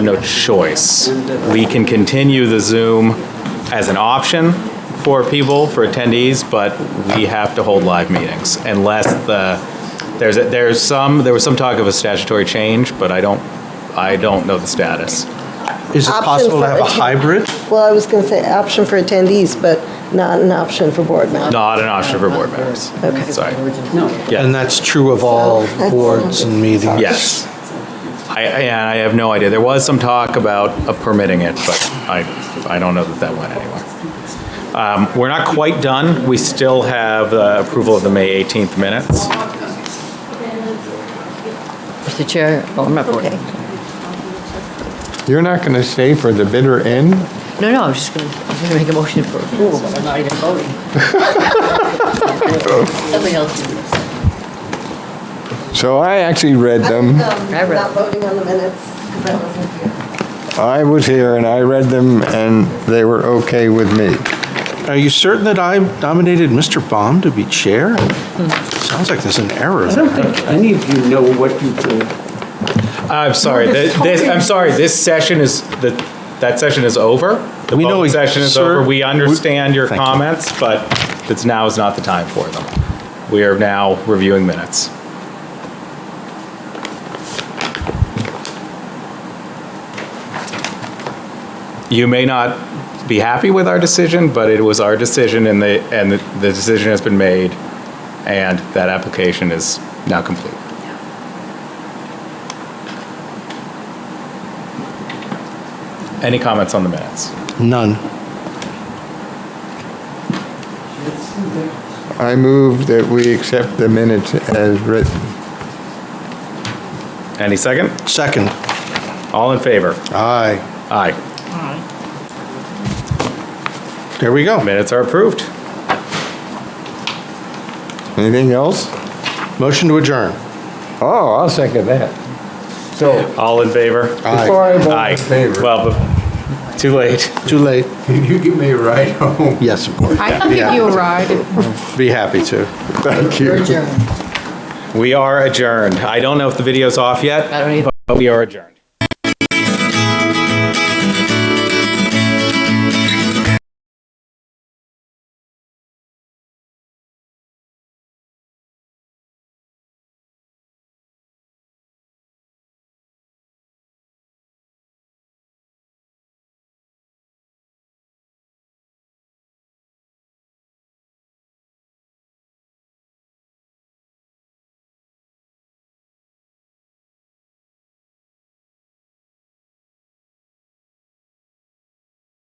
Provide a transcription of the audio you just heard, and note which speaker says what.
Speaker 1: no choice. We can continue the Zoom as an option for people, for attendees, but we have to hold live meetings unless the, there's, a- there's some, there was some talk of a statutory change, but I don't, I don't know the status.
Speaker 2: Is it
Speaker 3: Option
Speaker 2: possible to
Speaker 3: for
Speaker 2: have a
Speaker 3: atten-
Speaker 2: hybrid?
Speaker 3: Well, I was going to say option for attendees, but not an option for board members.
Speaker 1: Not an option for board members.
Speaker 3: Okay.
Speaker 1: Sorry. Yeah.
Speaker 2: And that's true of all boards and meetings?
Speaker 1: Yes. I, I yeah, I have no idea. There was some talk about uh, permitting it, but I, I don't know that that went anywhere. Um, We're not quite done. We still have uh, approval of the May 18th minutes.
Speaker 4: Mr. Chair, oh, I'm not voting.
Speaker 3: Okay.
Speaker 5: You're not going to stay for the bitter end?
Speaker 4: No, no, I'm just going to make a motion for approval, but I'm not even voting. Something else. to do.
Speaker 5: So I actually read
Speaker 3: I'm
Speaker 5: them.
Speaker 4: Barbara.
Speaker 3: not voting on the minutes because I wasn't here.
Speaker 5: I was here and I read them and they were okay with me.
Speaker 2: Are you certain that I nominated Mr. Baum to be chair? Sounds like there's an error.
Speaker 6: I don't think any of you know what you do.
Speaker 1: I'm sorry, th- this, I'm sorry, this session is, the that session is over. The
Speaker 2: We know
Speaker 1: voting
Speaker 2: ex-
Speaker 1: session is
Speaker 2: sir,
Speaker 1: over. We understand your
Speaker 2: Thank you.
Speaker 1: comments, but it's, now is not the time for them. We are now reviewing minutes. You may not be happy with our decision, but it was our decision and the, and the the decision has been made, and that application is now complete. Any comments on the minutes?
Speaker 2: None.
Speaker 5: I move that we accept the minutes as written.
Speaker 1: Any second?
Speaker 2: Second.
Speaker 1: All in favor?
Speaker 5: Aye.
Speaker 1: Aye.
Speaker 2: There we go.
Speaker 1: Minutes are approved.
Speaker 5: Anything else?
Speaker 2: Motion to adjourn.
Speaker 5: Oh, I'll second that. So,
Speaker 1: All in favor?
Speaker 2: Aye.
Speaker 5: before I vote
Speaker 1: Aye.
Speaker 5: in favor,
Speaker 1: Well, but- too late.
Speaker 2: Too late.
Speaker 5: can you give me a ride home?
Speaker 2: Yes, of course.
Speaker 7: I can give you a ride.
Speaker 2: Be happy to.
Speaker 5: Thank you.
Speaker 1: We are adjourned. I don't know if the video's off yet,
Speaker 4: I don't either.
Speaker 1: but we are adjourned.